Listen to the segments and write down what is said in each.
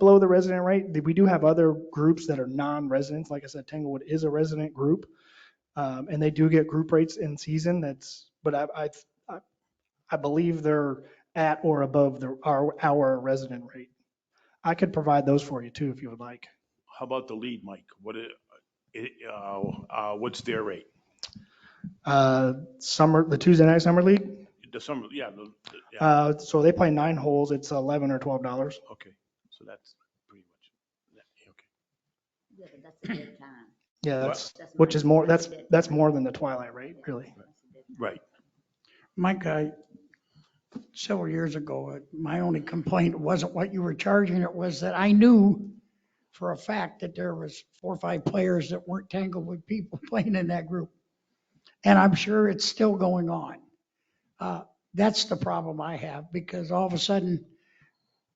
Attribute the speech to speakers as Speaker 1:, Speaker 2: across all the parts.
Speaker 1: below the resident rate. We do have other groups that are non-residents. Like I said, Tanglewood is a resident group. Um, and they do get group rates in season. That's, but I, I, I- I believe they're at or above the, our, our resident rate. I could provide those for you too, if you would like.
Speaker 2: How about the lead, Mike? What, i- i- uh, uh, what's their rate?
Speaker 1: Uh, summer, the Tuesday night summer league.
Speaker 2: The summer, yeah, the- the- yeah,
Speaker 1: Uh, so they play nine holes. It's 11 or 12 dollars.
Speaker 3: Uh,
Speaker 2: okay. So that's pretty much, yeah, okay.
Speaker 4: Yeah, but that's a good time.
Speaker 1: Yeah,
Speaker 2: What?
Speaker 1: that's,
Speaker 4: That's
Speaker 1: which is
Speaker 4: mine.
Speaker 1: more, that's,
Speaker 4: a good
Speaker 1: that's
Speaker 4: time.
Speaker 1: more than the twilight rate, really.
Speaker 4: That's a good time.
Speaker 2: Right.
Speaker 3: Mike, I, several years ago, my only complaint wasn't what you were charging, it was that I knew for a fact that there was four or five players that weren't tangled with people playing in that group. And I'm sure it's still going on. Uh, That's the problem I have, because all of a sudden,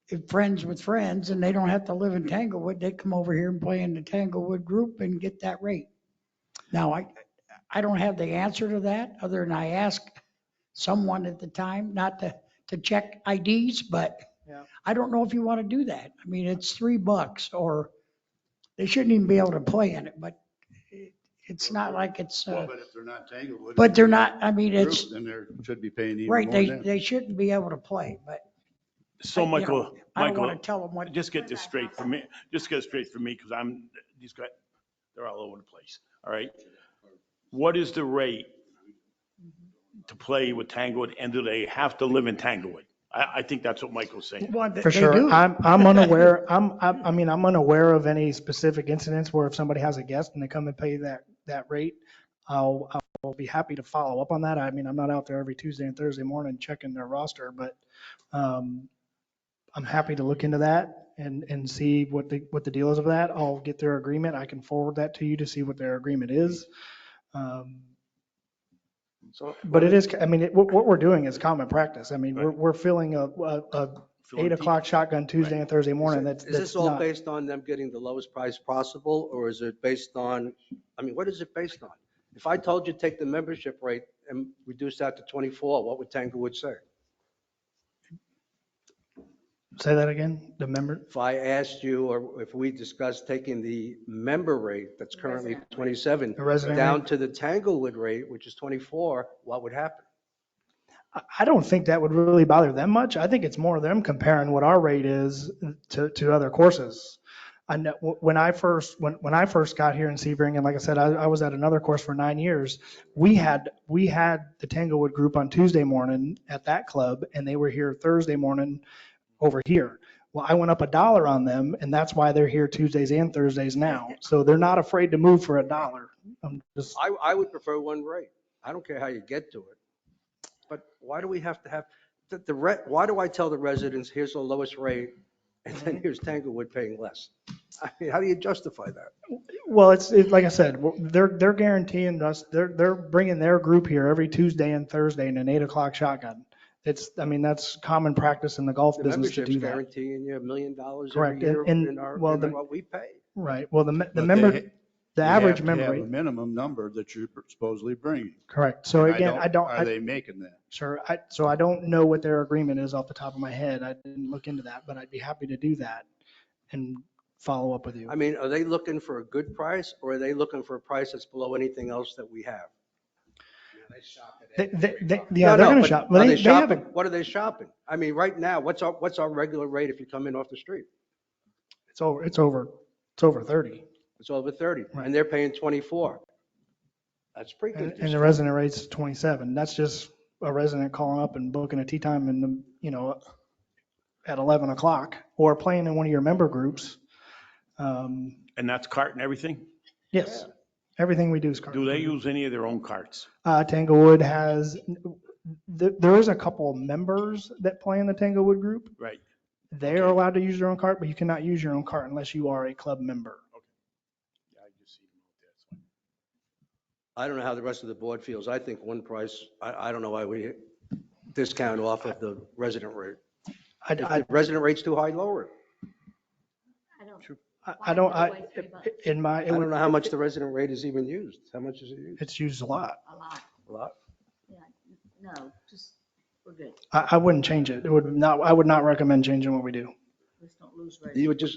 Speaker 3: if friends with friends, and they don't have to live in Tanglewood, they come over here and play in the Tanglewood group and get that rate. Now, I, I don't have the answer to that, other than I asked someone at the time, not to, to check IDs, but
Speaker 1: Yeah.
Speaker 3: I don't know if you want to do that. I mean, it's three bucks or they shouldn't even be able to play in it, but it- it's not like it's,
Speaker 5: Well,
Speaker 3: uh,
Speaker 5: but if they're not Tanglewood.
Speaker 3: but they're not, I mean,
Speaker 5: group,
Speaker 3: it's,
Speaker 5: Then they should be paying even more
Speaker 3: right, they,
Speaker 5: than that.
Speaker 3: they shouldn't be able to play, but
Speaker 2: So
Speaker 3: you know,
Speaker 2: Michael,
Speaker 3: I don't
Speaker 2: Michael,
Speaker 3: want to tell them what.
Speaker 2: just get this straight for me, just get it straight for me because I'm, these guys, they're all over the place. All right. What is the rate to play with Tanglewood and do they have to live in Tanglewood? I, I think that's what Michael's saying.
Speaker 3: Well, they-
Speaker 1: For
Speaker 3: they
Speaker 1: sure.
Speaker 3: do.
Speaker 1: I'm, I'm unaware, I'm, I'm- I mean, I'm unaware of any specific incidents where if somebody has a guest and they come and pay that, that rate, I'll, I'll be happy to follow up on that. I mean, I'm not out there every Tuesday and Thursday morning checking their roster, but um, I'm happy to look into that and, and see what the, what the deal is of that. I'll get their agreement. I can forward that to you to see what their agreement is. Um,
Speaker 2: So
Speaker 1: But it is, I mean, it- what, what we're doing is common practice. I mean, we're,
Speaker 2: Right.
Speaker 1: we're filling a, a, a
Speaker 2: Feeling
Speaker 1: eight
Speaker 2: deep.
Speaker 1: o'clock shotgun Tuesday and Thursday morning. That's,
Speaker 6: Is this
Speaker 1: that's
Speaker 6: all
Speaker 1: not,
Speaker 6: based on them getting the lowest price possible, or is it based on, I mean, what is it based on? If I told you take the membership rate and reduce that to 24, what would Tanglewood say?
Speaker 1: say that again, the member,
Speaker 6: If I asked you, or if we discussed taking the member rate that's currently
Speaker 4: Resident rate.
Speaker 6: 27
Speaker 1: the resident. rate?
Speaker 6: down to the Tanglewood rate, which is 24, what would happen?
Speaker 1: I- I don't think that would really bother them much. I think it's more them comparing what our rate is to, to other courses. I know, when I first, when, when I first got here in Sebring, and like I said, I, I was at another course for nine years. We had, we had the Tanglewood group on Tuesday morning at that club, and they were here Thursday morning over here. Well, I went up a dollar on them, and that's why they're here Tuesdays and Thursdays now. So they're not afraid to move for a dollar. I'm just,
Speaker 6: I, I would prefer one rate. I don't care how you get to it. But why do we have to have, the, the, re- why do I tell the residents, here's the lowest rate, and then here's Tanglewood paying less? I mean, how do you justify that?
Speaker 1: Well, it's, it, like I said, we're- they're, they're guaranteeing us, they're, they're bringing their group here every Tuesday and Thursday in an eight o'clock shotgun. It's, I mean, that's common practice in the golf
Speaker 6: The
Speaker 1: business to
Speaker 6: membership's
Speaker 1: do that.
Speaker 6: guaranteeing you a million dollars
Speaker 1: Correct,
Speaker 6: every year
Speaker 1: and-
Speaker 6: in our,
Speaker 1: well, the-
Speaker 6: in what we pay.
Speaker 1: Right, well, the, me-
Speaker 5: But
Speaker 1: the
Speaker 5: they ha-
Speaker 1: member, the
Speaker 5: they
Speaker 1: average
Speaker 5: have to
Speaker 1: member,
Speaker 5: have a
Speaker 1: rate-
Speaker 5: Minimum number that you're supposedly bringing.
Speaker 1: correct. So
Speaker 5: And
Speaker 1: again, I don't,
Speaker 5: Are
Speaker 1: I,
Speaker 5: they making that?
Speaker 1: sure, I, so I don't know what their agreement is off the top of my head. I didn't look into that, but I'd be happy to do that and follow up with you.
Speaker 6: I mean, are they looking for a good price, or are they looking for a price that's below anything else that we have?
Speaker 1: They, they, they, yeah, they're
Speaker 6: No, no,
Speaker 1: gonna
Speaker 6: but
Speaker 1: shop,
Speaker 6: are
Speaker 1: but they, they have
Speaker 6: shopping?
Speaker 1: a,
Speaker 6: What are they shopping? I mean, right now, what's our, what's our regular rate if you come in off the street?
Speaker 1: it's over, it's over, it's over thirty.
Speaker 6: It's over 30,
Speaker 1: Right.
Speaker 6: and they're paying 24. That's pretty
Speaker 1: And
Speaker 6: good.
Speaker 1: and the resident rate's 27. That's just a resident calling up and booking a tea time in the, you know, at 11 o'clock or playing in one of your member groups. Um,
Speaker 2: And that's cart and everything?
Speaker 1: Yes, everything we do is card.
Speaker 2: Do
Speaker 3: Mm-hmm.
Speaker 2: they use any of their own carts?
Speaker 1: Uh, Tanglewood has, th- there is a couple members that play in the Tanglewood group.
Speaker 2: Right.
Speaker 1: They are allowed to use their own cart, but you cannot use your own cart unless you are a club member.
Speaker 2: Yeah, I just see them out there. It's fine.
Speaker 6: I don't know how the rest of the board feels. I think one price, I, I don't know why we discount off of the resident rate.
Speaker 1: I,
Speaker 6: If
Speaker 1: I,
Speaker 6: the resident rate's too high, lower it.
Speaker 4: I don't,
Speaker 1: I- I don't, I,
Speaker 4: Why three bucks?
Speaker 1: in my,
Speaker 6: I don't know how much the resident rate is even used. How much is it used?
Speaker 1: it's used a lot.
Speaker 4: a lot,
Speaker 6: A lot.
Speaker 4: yeah, no, just, we're good,
Speaker 1: I, I wouldn't change it. It would not, I would not recommend changing what we do.
Speaker 4: let's not lose.
Speaker 6: You
Speaker 4: revenue.
Speaker 6: would just